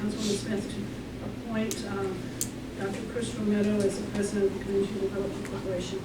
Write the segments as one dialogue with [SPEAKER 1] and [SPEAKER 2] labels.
[SPEAKER 1] Councilwoman Smith to appoint um, Dr. Chris Romero as the president of the Community Development Corporation.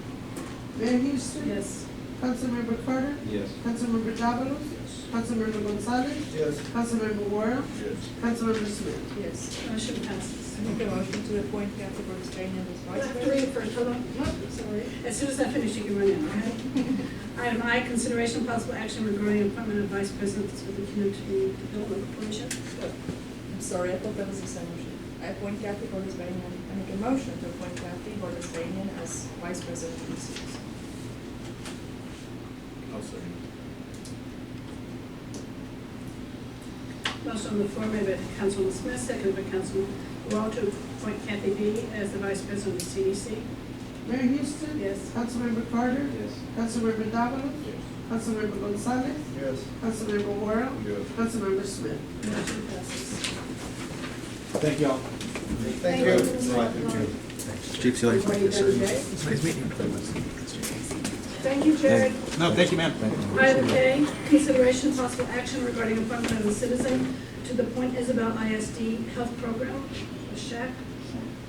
[SPEAKER 2] Mayor Houston.
[SPEAKER 1] Yes.
[SPEAKER 2] Councilmember Carter.
[SPEAKER 3] Yes.
[SPEAKER 2] Councilmember Davalos.
[SPEAKER 3] Yes.
[SPEAKER 2] Councilmember Gonzalez.
[SPEAKER 3] Yes.
[SPEAKER 2] Councilmember Warren.
[SPEAKER 3] Yes.
[SPEAKER 2] Councilmember Smith.
[SPEAKER 4] Yes.
[SPEAKER 1] Motion passes.
[SPEAKER 4] I make a motion to appoint Kathy Brooks Daniel as
[SPEAKER 1] Well, I
[SPEAKER 4] vice
[SPEAKER 1] have to read
[SPEAKER 4] president.
[SPEAKER 1] it first, hold on.
[SPEAKER 4] Sorry.
[SPEAKER 1] As soon as I finish, you can run in, okay? Item I, consideration of possible action regarding appointment of vice president for the Community Development Corporation.
[SPEAKER 4] I'm sorry, I thought that was the same motion. I appoint Kathy Brooks Daniel, I make a motion to appoint Kathy Brooks Daniel as vice president of the city.
[SPEAKER 3] I'll second.
[SPEAKER 1] Motion on the floor made by Councilman Smith, seconded by Councilman Wall to appoint Kathy B. as the vice president of the CDC.
[SPEAKER 2] Mayor Houston.
[SPEAKER 1] Yes.
[SPEAKER 2] Councilmember Carter.
[SPEAKER 3] Yes.
[SPEAKER 2] Councilmember Davalos.
[SPEAKER 3] Yes.
[SPEAKER 2] Councilmember Gonzalez.
[SPEAKER 3] Yes.
[SPEAKER 2] Councilmember Warren.
[SPEAKER 3] Yes.
[SPEAKER 2] Councilmember Smith.
[SPEAKER 1] Motion passes.
[SPEAKER 3] Thank y'all. Thank
[SPEAKER 4] you.
[SPEAKER 5] Chief, see you later.
[SPEAKER 1] Before you go, Jay.
[SPEAKER 5] Nice meeting you.
[SPEAKER 1] Thank you, Jared.
[SPEAKER 3] No, thank you, ma'am.
[SPEAKER 1] Item K, consideration possible action regarding appointment of a citizen to the Point Isabel ISD Health Program, the SHAC.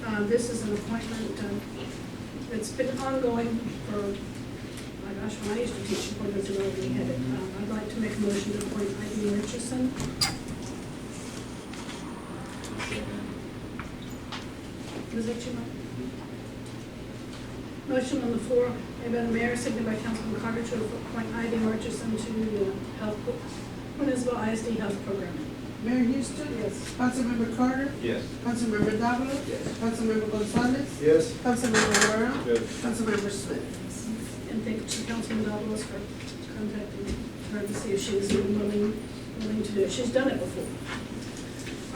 [SPEAKER 1] Uh, This is an appointment um, that's been ongoing for, my gosh, when I used to teach appointments, and already had it. Um, I'd like to make a motion to appoint Ivy Richardson. Is that you, Mike? Motion on the floor made by the mayor, seconded by Councilman Carter to appoint Ivy Richardson to the Health, Point Isabel ISD Health Program.
[SPEAKER 2] Mayor Houston.
[SPEAKER 1] Yes.
[SPEAKER 2] Councilmember Carter.
[SPEAKER 3] Yes.
[SPEAKER 2] Councilmember Davalos.
[SPEAKER 3] Yes.
[SPEAKER 2] Councilmember Gonzalez.
[SPEAKER 3] Yes.
[SPEAKER 2] Councilmember Warren.
[SPEAKER 3] Yes.
[SPEAKER 2] Councilmember Smith.
[SPEAKER 1] And thank you, Councilman Davalos, for contacting her to see if she was willing, willing to do it. She's done it before.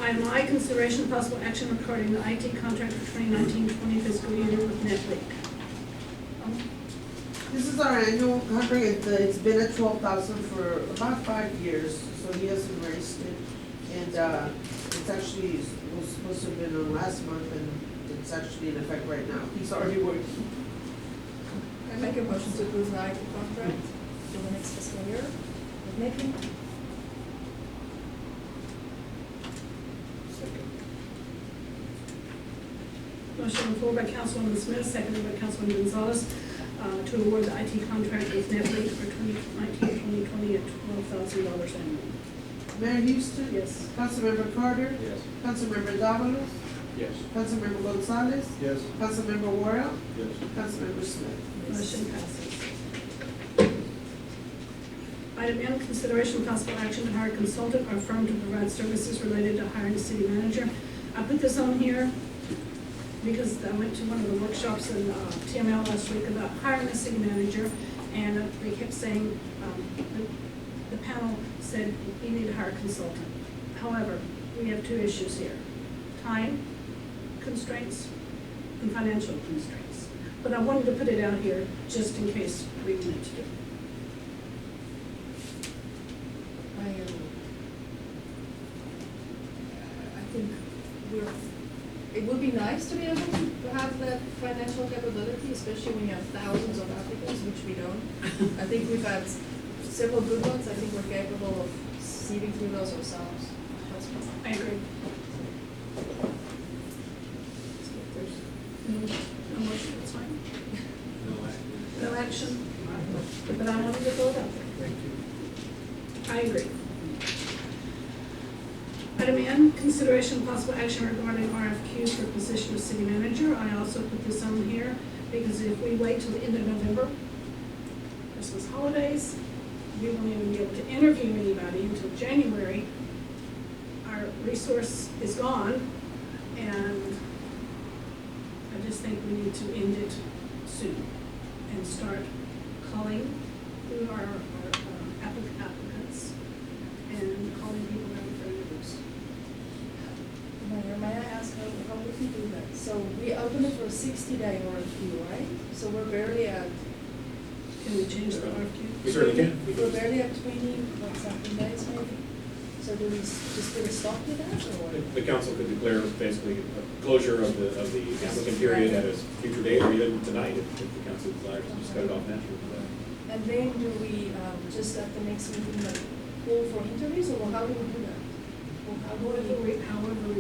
[SPEAKER 1] Item I, consideration of possible action regarding the IT contract for 2019-20 fiscal year with NetLink. Um,
[SPEAKER 2] This is our annual contract, It's, uh, it's been at twelve thousand for about five years, so he hasn't raised it. And, uh, it's actually, it was supposed to have been on last month, and it's actually in effect right now, he's already working.
[SPEAKER 4] I make a motion to approve the IT contract for the next fiscal year. With Nikki?
[SPEAKER 1] Motion on the floor by Councilwoman Smith, seconded by Councilman Gonzalez, uh, to award the IT contract with NetLink for 2019-2020 at $12,000 annually.
[SPEAKER 2] Mayor Houston?
[SPEAKER 1] Yes.
[SPEAKER 2] Councilmember Carter?
[SPEAKER 3] Yes.
[SPEAKER 2] Councilmember Davalos?
[SPEAKER 3] Yes.
[SPEAKER 2] Councilmember Gonzalez?
[SPEAKER 3] Yes.
[SPEAKER 2] Councilmember Warren?
[SPEAKER 3] Yes.
[SPEAKER 2] Councilmember Smith?
[SPEAKER 1] Motion passes. Item N, consideration of possible action to hire a consultant or firm to provide services related to hiring a city manager. I put this on here because I went to one of the workshops in uh, TML last week about hiring a city manager, and they kept saying, um, the- the panel said, you need to hire a consultant. However, we have two issues here, time constraints and financial constraints. But I wanted to put it out here just in case we wanted to do it.
[SPEAKER 4] I, um, I think we're, it would be nice to be able to have that financial capability, especially when you have thousands of applicants, which we don't. I think we've had several good ones, I think we're capable of seeing through those ourselves. That's fine.
[SPEAKER 1] I agree. No motion, that's fine. No action. But I wanted to go out there. I agree. Item N, consideration of possible action regarding RFQs for position of city manager. I also put this on here because if we wait till the end of November, Christmas holidays, we won't even be able to interview anybody until January. Our resource is gone and I just think we need to end it soon and start calling who are our uh, applic- applicants and calling people that we're going to lose.
[SPEAKER 4] Mayor, may I ask how, how would we do that? So we open it for a sixty day RFQ, right? So we're barely at,
[SPEAKER 1] Can we change the RFQ?
[SPEAKER 4] we're barely at twenty, like something days maybe? So do we s- just put a stop to that or? what?
[SPEAKER 6] The council could declare basically a closure of the, of the applicant period at a future date or even tonight if if the council desires, just cut it off naturally.
[SPEAKER 4] And then do we, um, just at the next meeting, like, call for interviews, or how do we do that? Or how do
[SPEAKER 1] However
[SPEAKER 4] we?
[SPEAKER 1] we, however we